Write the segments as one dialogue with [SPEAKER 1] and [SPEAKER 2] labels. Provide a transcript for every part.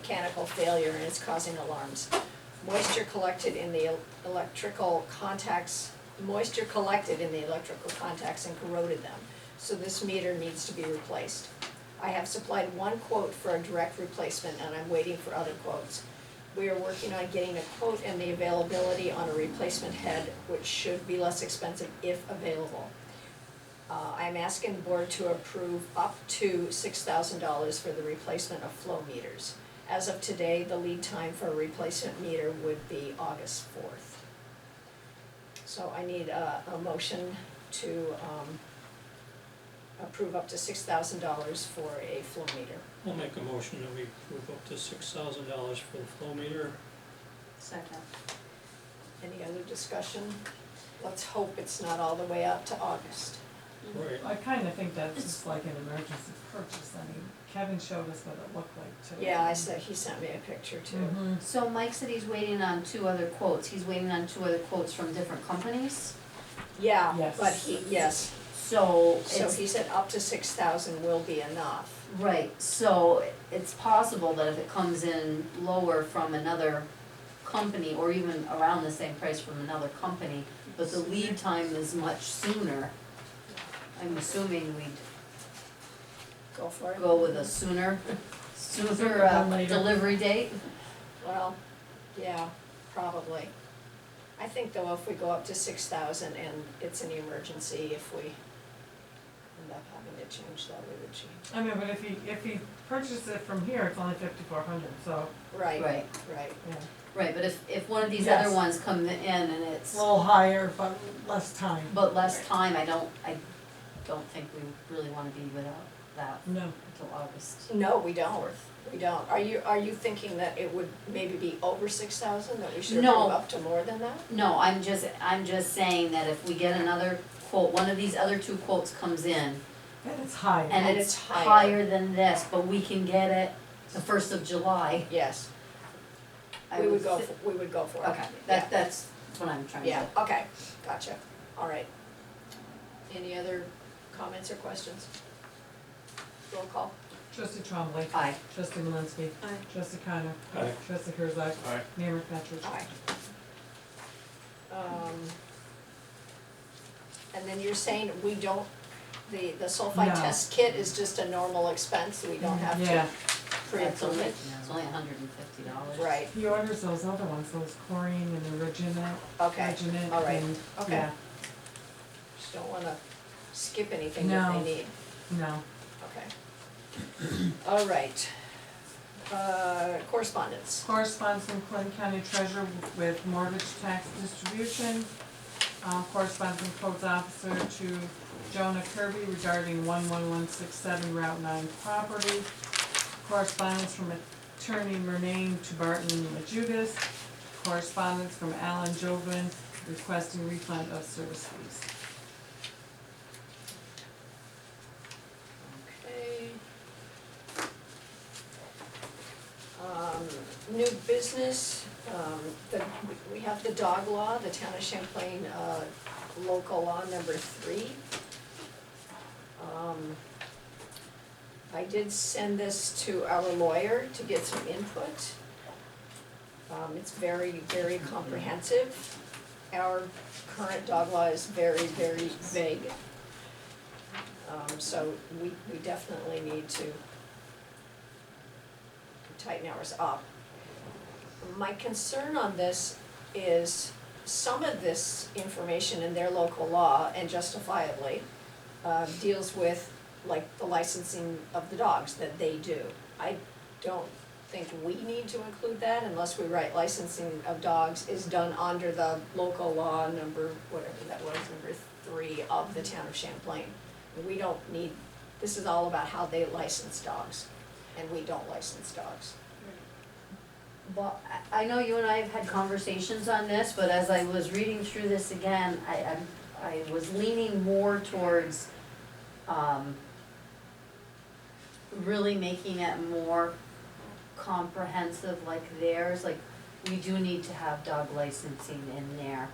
[SPEAKER 1] mechanical failure and is causing alarms. Moisture collected in the el- electrical contacts, moisture collected in the electrical contacts and corroded them, so this meter needs to be replaced. I have supplied one quote for a direct replacement and I'm waiting for other quotes. We are working on getting a quote and the availability on a replacement head, which should be less expensive if available. Uh, I'm asking the board to approve up to six thousand dollars for the replacement of flow meters. As of today, the lead time for a replacement meter would be August fourth. So I need a, a motion to, um, approve up to six thousand dollars for a flow meter.
[SPEAKER 2] I'll make a motion that we approve up to six thousand dollars for the flow meter.
[SPEAKER 3] Second.
[SPEAKER 1] Any other discussion? Let's hope it's not all the way up to August.
[SPEAKER 2] Right,
[SPEAKER 4] I kinda think that's just like an emergency purchase, I mean, Kevin showed us what it looked like too.
[SPEAKER 1] Yeah, I said, he sent me a picture too.
[SPEAKER 4] Mhm.
[SPEAKER 3] So Mike said he's waiting on two other quotes, he's waiting on two other quotes from different companies,
[SPEAKER 1] Yeah,
[SPEAKER 4] Yes.
[SPEAKER 1] but he, yes,
[SPEAKER 3] so
[SPEAKER 1] so
[SPEAKER 3] it's,
[SPEAKER 1] he said up to six thousand will be enough.
[SPEAKER 3] right, so it's possible that if it comes in lower from another company, or even around the same price from another company, but the lead time is much sooner, I'm assuming we'd
[SPEAKER 1] Go for it.
[SPEAKER 3] go with a sooner, sooner
[SPEAKER 4] Than
[SPEAKER 3] uh,
[SPEAKER 4] later.
[SPEAKER 3] delivery date.
[SPEAKER 1] Well, yeah, probably. I think though if we go up to six thousand and it's an emergency, if we end up having to change that, we would change.
[SPEAKER 4] I mean, but if he, if he purchases it from here, it's only fifty-four hundred, so,
[SPEAKER 1] Right,
[SPEAKER 3] Right,
[SPEAKER 1] right.
[SPEAKER 4] yeah.
[SPEAKER 3] right, but if, if one of these other
[SPEAKER 4] Yes.
[SPEAKER 3] ones come in and it's.
[SPEAKER 4] A little higher, but less time.
[SPEAKER 3] But less time, I don't, I don't think we really wanna be without that
[SPEAKER 4] No,
[SPEAKER 3] until August.
[SPEAKER 1] No, we don't, we don't. Are you, are you thinking that it would maybe be over six thousand, that we should
[SPEAKER 3] No.
[SPEAKER 1] approve up to more than that?
[SPEAKER 3] No, I'm just, I'm just saying that if we get another quote, one of these other two quotes comes in
[SPEAKER 4] and it's higher,
[SPEAKER 1] And
[SPEAKER 3] and
[SPEAKER 1] it's
[SPEAKER 3] it's
[SPEAKER 1] higher.
[SPEAKER 3] higher than this, but we can get it the first of July,
[SPEAKER 1] Yes,
[SPEAKER 3] I
[SPEAKER 1] we would go,
[SPEAKER 3] thi-
[SPEAKER 1] for- we would go for it.
[SPEAKER 3] Okay,
[SPEAKER 1] Yeah.
[SPEAKER 3] that, that's what I'm trying to.
[SPEAKER 1] Yeah, okay, gotcha, all right. Any other comments or questions? Roll call.
[SPEAKER 4] trustee Trombley,
[SPEAKER 3] Aye.
[SPEAKER 4] trustee Malinsky,
[SPEAKER 1] Aye.
[SPEAKER 4] trustee Connor,
[SPEAKER 2] Aye.
[SPEAKER 4] trustee Herzog,
[SPEAKER 2] Aye.
[SPEAKER 4] Mayor McFetrich.
[SPEAKER 1] Aye. Um, And then you're saying we don't, the, the sulfide
[SPEAKER 4] No.
[SPEAKER 1] test kit is just a normal expense, we don't have
[SPEAKER 4] Yeah,
[SPEAKER 1] to
[SPEAKER 3] That's
[SPEAKER 1] pre-approve
[SPEAKER 3] only,
[SPEAKER 1] it?
[SPEAKER 3] it's only hundred and fifty dollars.
[SPEAKER 1] Right,
[SPEAKER 4] he orders those other ones, those chlorine and the reginate,
[SPEAKER 1] okay,
[SPEAKER 4] reginate
[SPEAKER 1] all right,
[SPEAKER 4] and,
[SPEAKER 1] okay.
[SPEAKER 4] yeah,
[SPEAKER 1] just don't wanna skip anything that they
[SPEAKER 4] No.
[SPEAKER 1] need,
[SPEAKER 4] no,
[SPEAKER 1] okay. All right. Uh, correspondence,
[SPEAKER 4] Correspondence from Clinton County Treasurer with mortgage tax distribution. Um, correspondence from codes officer to Jonah Kirby regarding one one one six seven Route nine property. Correspondence from attorney Murnane to Barton and Majugas. Correspondence from Alan Jovan requesting refund of service fees.
[SPEAKER 1] okay. Um, new business, um, the, we have the dog law, the town of Champlain, uh, local law number three. Um, I did send this to our lawyer to get some input. Um, it's very, very comprehensive. Our current dog law is very, very vague. Um, so we, we definitely need to tighten ours up. My concern on this is some of this information in their local law, and justifiably, uh, deals with like the licensing of the dogs that they do. I don't think we need to include that unless we write licensing of dogs is done under the local law number, whatever that was, number three of the town of Champlain. We don't need, this is all about how they license dogs, and we don't license dogs.
[SPEAKER 3] Well, I, I know you and I have had conversations on this, but as I was reading through this again, I, I'm, I was leaning more towards, um, really making it more comprehensive like theirs, like, we do need to have dog licensing in there.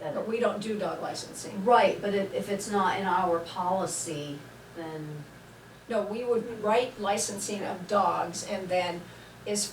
[SPEAKER 3] That,
[SPEAKER 1] But we don't do dog licensing.
[SPEAKER 3] right, but if, if it's not in our policy, then.
[SPEAKER 1] No, we would write licensing of dogs and then as